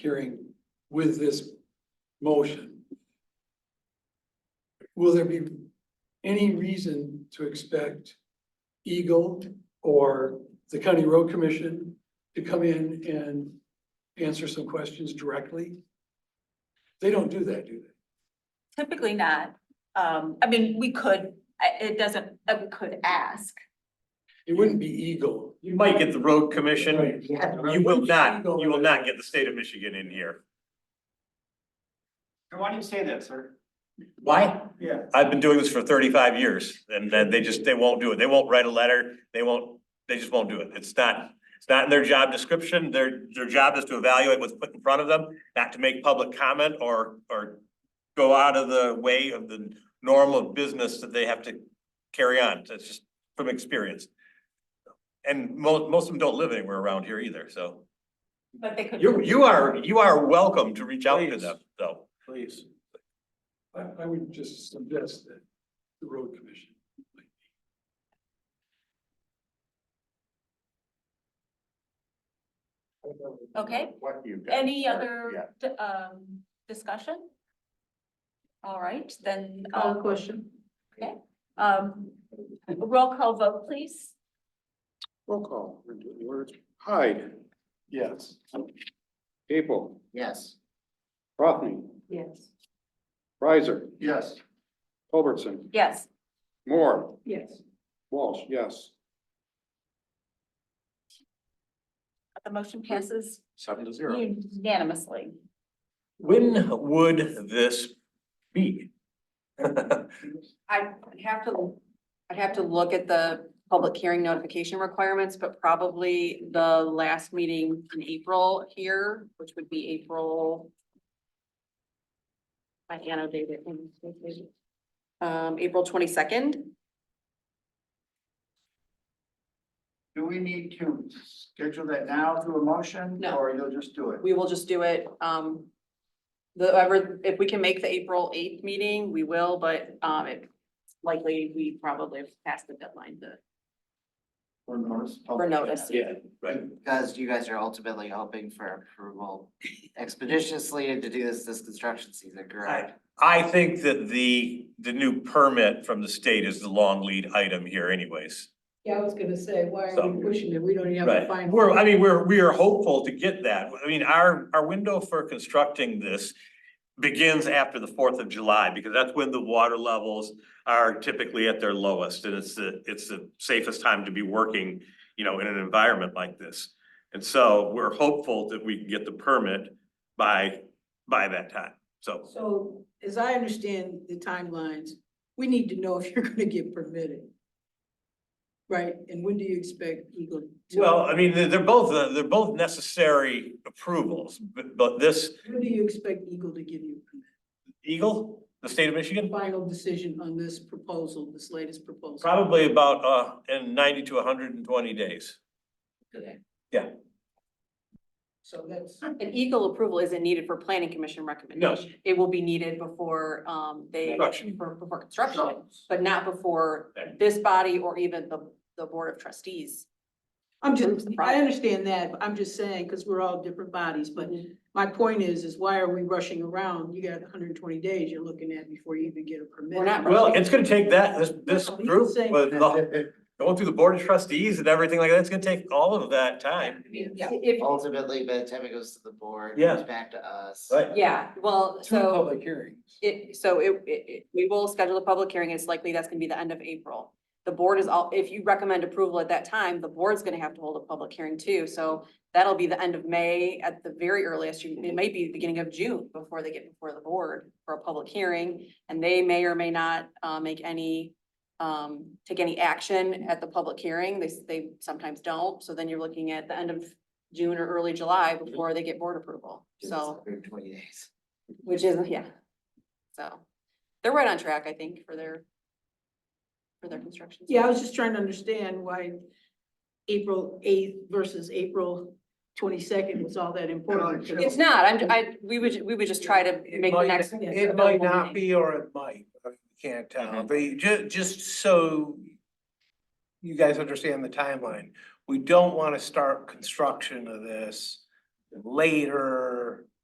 hearing with this motion. Will there be any reason to expect Eagle or the County Road Commission to come in and answer some questions directly? They don't do that, do they? Typically not. Um, I mean, we could, I- it doesn't, uh, we could ask. It wouldn't be Eagle. You might get the road commission, you will not, Eagle. you will not get the state of Michigan in here. Why do you say that, sir? Why? Yeah. I've been doing this for thirty-five years, and then they just, they won't do it, they won't write a letter, they won't, they just won't do it, it's not, it's not in their job description, their, their job is to evaluate what's put in front of them, not to make public comment or, or go out of the way of the norm of business that they have to carry on, that's just from experience. And mo- most of them don't live anywhere around here either, so. But they could. You, you are, you are welcome to reach out to them, though. Please. I, I would just suggest that the road commission. might be. Okay. Any other, d- um, discussion? All right, then. Call question. Okay, um, roll call vote, please. Roll call, we're doing the words. Hyde, Yes. Capel, Yes. Rothney, Yes. Riser, Yes. Culbertson, Yes, Moore, Yes. Walsh, yes. the motion passes Seven to unanimously. When would this be? I'd have to, I'd have to look at the public hearing notification requirements, but probably the last meeting in April here, which would be April. I annotated. it. Um, April twenty-second, Do we need to schedule that now through a motion? No. Or you'll just do it? we will just do it, um. The, ever, if we can make the April eighth meeting, we will, but, um, it likely, we probably have passed the deadline to, For notice. for notice. Right. Because you guys are ultimately hoping for approval expeditiously and to do this this construction season, correct? I think that the, the new permit from the state is the long lead item here anyways. Yeah, I was gonna say, why are So- we pushing it? We don't even have a Right, final. we're, I mean, we're, we are hopeful to get that. I mean, our, our window for constructing this begins after the Fourth of July, because that's when the water levels are typically at their lowest, and it's the, it's the safest time to be working, you know, in an environment like this. And so we're hopeful that we can get the permit by, by that time, so. So as I understand the timelines, we need to know if you're gonna get permitted. Right? And when do you expect Eagle? to- Well, I mean, they're, they're both, uh, they're both necessary approvals, but, but this When do you expect Eagle to give you a Eagle, the state of Michigan, final decision on this proposal, this latest proposal? Probably about uh in ninety to hundred and twenty days. Today. Yeah. So that's, An Eagle approval isn't needed for planning commission recommendation. It will be needed before, um, they, Construction. for- before construction, but not before Okay. this body or even the, the board of trustees. I'm Proves just, the I product. understand that, but I'm just saying, because we're all different bodies, but Mm-hmm. my point is, is why are we rushing around? You got hundred and twenty days you're looking at before you even get a permit. We're not Well, it's gonna take that, this this No, you group, say- with the- going through the board of trustees and everything like that, it's gonna take all of that time. Yeah, If, Ultimately, by the time it goes to the board, it Yeah. comes back to us. Right. yeah, well, Two so public hearings. it, so it, it, it- we will schedule a public hearing. It's likely that's gonna be the end of April. The board is all, if you recommend approval at that time, the board's gonna have to hold a public hearing too. So that'll be the end of May at the very earliest. You- It might be the beginning of June before they get before the board for a public hearing. And they may or may not uh make any um take any action at the public hearing. They s- they sometimes don't. So then you're looking at the end of June or early July before they get board approval. So Hundred twenty days. which is, yeah. So they're right on track, I think, for their, for their construction. yeah, I was just trying to understand why April eighth versus April twenty-second was all that important. sure. It's not, I'm, I, we would, we would just try to make the next. It might not be. can't Mm-hmm. tell, but you ju- just so you guys understand the timeline, we don't wanna start construction of this later.